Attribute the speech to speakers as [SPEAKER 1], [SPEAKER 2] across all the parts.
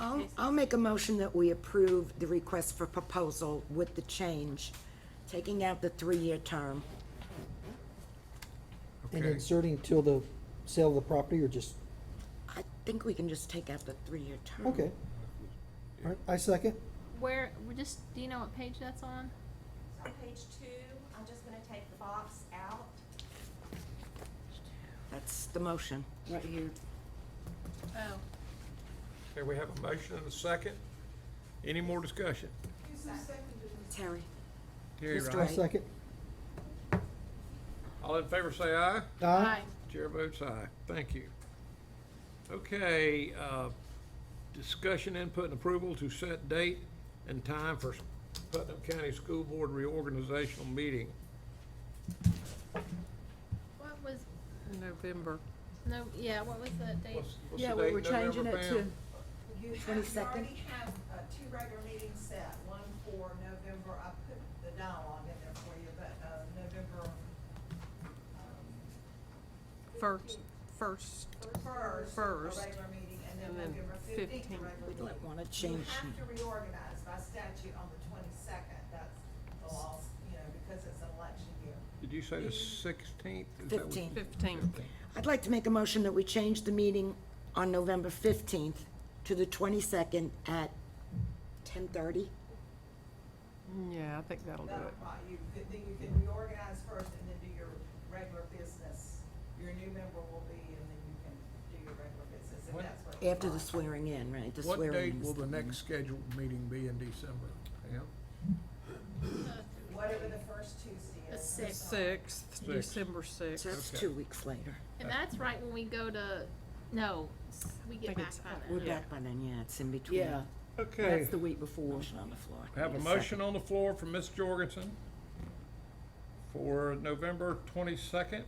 [SPEAKER 1] I'll, I'll make a motion that we approve the request for proposal with the change, taking out the three-year term.
[SPEAKER 2] And
[SPEAKER 3] Okay.
[SPEAKER 2] inserting till the sale of the property or just,
[SPEAKER 1] I think we can just take out the three-year term.
[SPEAKER 2] okay. All right, I second.
[SPEAKER 4] Where, we're just, do you know what page that's on?
[SPEAKER 5] So on page two, I'm just gonna take the box out.
[SPEAKER 1] That's the motion. Right here.
[SPEAKER 4] Oh.
[SPEAKER 3] Okay, we have a motion and a second. Any more discussion?
[SPEAKER 1] Terry?
[SPEAKER 3] Terry
[SPEAKER 1] Mr.
[SPEAKER 2] I
[SPEAKER 3] Rice.
[SPEAKER 1] Right.
[SPEAKER 2] second.
[SPEAKER 3] All in favor say aye.
[SPEAKER 2] Aye.
[SPEAKER 3] Chair votes aye. Thank you. Okay, uh, discussion, input, and approval to set date and time for Putnam County School Board reorganizational meeting.
[SPEAKER 4] What was,
[SPEAKER 6] November.
[SPEAKER 4] no, yeah, what was that date?
[SPEAKER 3] What's- what's the
[SPEAKER 6] Yeah, we
[SPEAKER 3] date,
[SPEAKER 6] were changing
[SPEAKER 3] November,
[SPEAKER 6] it
[SPEAKER 3] Pam?
[SPEAKER 6] to,
[SPEAKER 5] You have, you
[SPEAKER 1] 22nd?
[SPEAKER 5] already have, uh, two regular meetings set, one for November, I put the dialogue in there for you, but, uh, November, um,
[SPEAKER 6] first, first.
[SPEAKER 5] first,
[SPEAKER 6] First.
[SPEAKER 5] a regular meeting, and then
[SPEAKER 6] And then
[SPEAKER 5] November fifteenth, a
[SPEAKER 6] 15th.
[SPEAKER 1] We
[SPEAKER 5] regular
[SPEAKER 1] don't
[SPEAKER 5] meeting.
[SPEAKER 1] want to
[SPEAKER 5] You
[SPEAKER 1] change.
[SPEAKER 5] have to reorganize by statute on the twenty-second, that's the law, you know, because it's an election year.
[SPEAKER 3] Did you say the sixteenth?
[SPEAKER 1] Fifteenth.
[SPEAKER 6] Fifteenth.
[SPEAKER 1] I'd like to make a motion that we change the meeting on November 15th to the 22nd at 10:30.
[SPEAKER 6] Yeah, I think that'll do
[SPEAKER 5] That'll
[SPEAKER 6] it.
[SPEAKER 5] probably, you could, then you can reorganize first and then do your regular business. Your new member will be, and then you can do your regular business, if
[SPEAKER 3] What-
[SPEAKER 5] that's what. you
[SPEAKER 1] After the
[SPEAKER 5] want.
[SPEAKER 1] swearing in, right? The
[SPEAKER 3] What
[SPEAKER 1] swearing
[SPEAKER 3] date
[SPEAKER 1] in is
[SPEAKER 3] will the next scheduled meeting be in December? Pam?
[SPEAKER 5] Whatever the first Tuesday
[SPEAKER 4] Uh, The
[SPEAKER 5] is.
[SPEAKER 4] sixth.
[SPEAKER 6] Sixth, December sixth.
[SPEAKER 1] So that's
[SPEAKER 3] Okay.
[SPEAKER 1] two weeks later.
[SPEAKER 4] And that's right when we go to, no, s- we get
[SPEAKER 6] Think
[SPEAKER 4] back
[SPEAKER 6] it's-
[SPEAKER 4] on
[SPEAKER 1] We're
[SPEAKER 4] it.
[SPEAKER 6] Yeah.
[SPEAKER 1] back by then, yeah, it's in between.
[SPEAKER 6] Yeah,
[SPEAKER 3] Okay.
[SPEAKER 6] that's the week before.
[SPEAKER 1] Motion on the floor.
[SPEAKER 3] I Have a
[SPEAKER 1] Need
[SPEAKER 3] motion on the floor from Ms. Jorgensen for November twenty-second,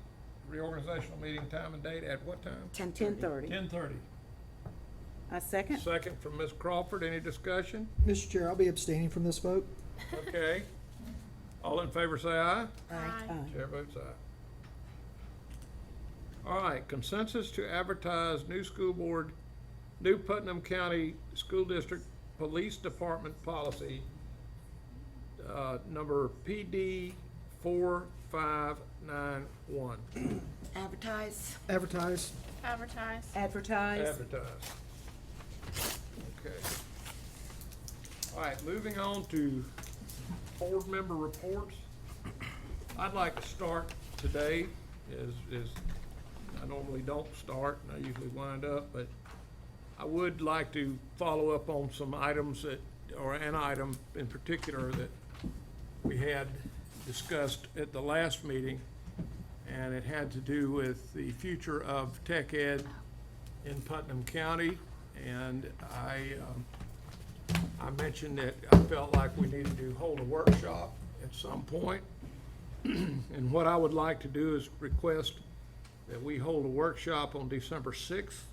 [SPEAKER 3] reorganizational meeting time and date at what time?
[SPEAKER 1] second. 10:30.
[SPEAKER 6] Ten thirty.
[SPEAKER 3] Ten thirty.
[SPEAKER 6] I second.
[SPEAKER 3] Second from Ms. Crawford, any discussion?
[SPEAKER 2] Mr. Chair, I'll be abstaining from this vote.
[SPEAKER 3] Okay. All in favor say aye.
[SPEAKER 4] Aye.
[SPEAKER 3] Chair votes aye. All right, consensus to advertise new school board, new Putnam County School District Police Department policy, uh, number PD four five nine one,
[SPEAKER 1] Advertise.
[SPEAKER 2] Advertise.
[SPEAKER 4] Advertise.
[SPEAKER 6] Advertise.
[SPEAKER 3] advertise. Okay. All right, moving on to board member reports. I'd like to start today is, is, I normally don't start and I usually wind up, but I would like to follow up on some items that, or an item in particular that we had discussed at the last meeting. And it had to do with the future of tech ed in Putnam County. And I, um, I mentioned that I felt like we needed to hold a workshop at some point. And what I would like to do is request that we hold a workshop on December sixth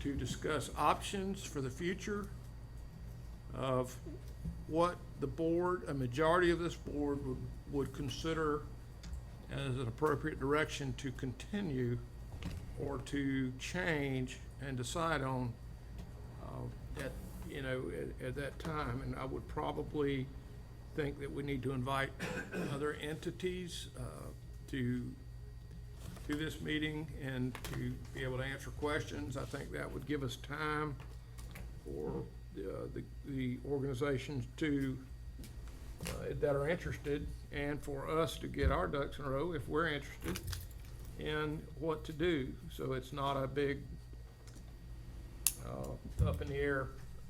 [SPEAKER 3] to discuss options for the future of what the board, a majority of this board would, would consider as an appropriate direction to continue or to change and decide on uh, at, you know, at, at that time. And I would probably think that we need to invite other entities uh, to, to this meeting and to be able to answer questions. I think that would give us time for uh, the, the organizations to, uh, that are interested and for us to get our ducks in a row if we're interested in what to do. So it's not a big uh, up in the air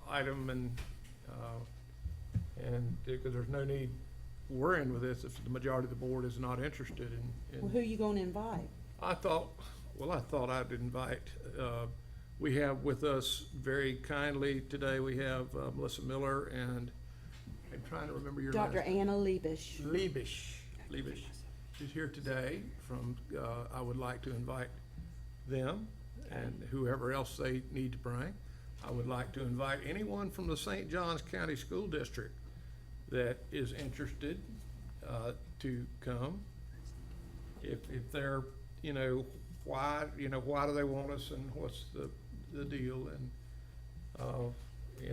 [SPEAKER 3] item and, uh, and, because there's no need worrying with this if the majority of the board is not interested in. in-
[SPEAKER 7] Well, who you gonna invite?
[SPEAKER 3] I thought, well, I thought I'd invite, uh, we have with us very kindly today, we have uh, Melissa Miller and, I'm trying to remember your last.
[SPEAKER 7] Dr. Anna Liebisch.
[SPEAKER 3] Liebisch, Liebisch is here today from, uh, I would like to invite them and whoever else they need to bring. I would like to invite anyone from the St. Johns County School District that is interested uh, to come. If, if they're, you know, why, you know, why do they want us and uh, what's the, the deal? And of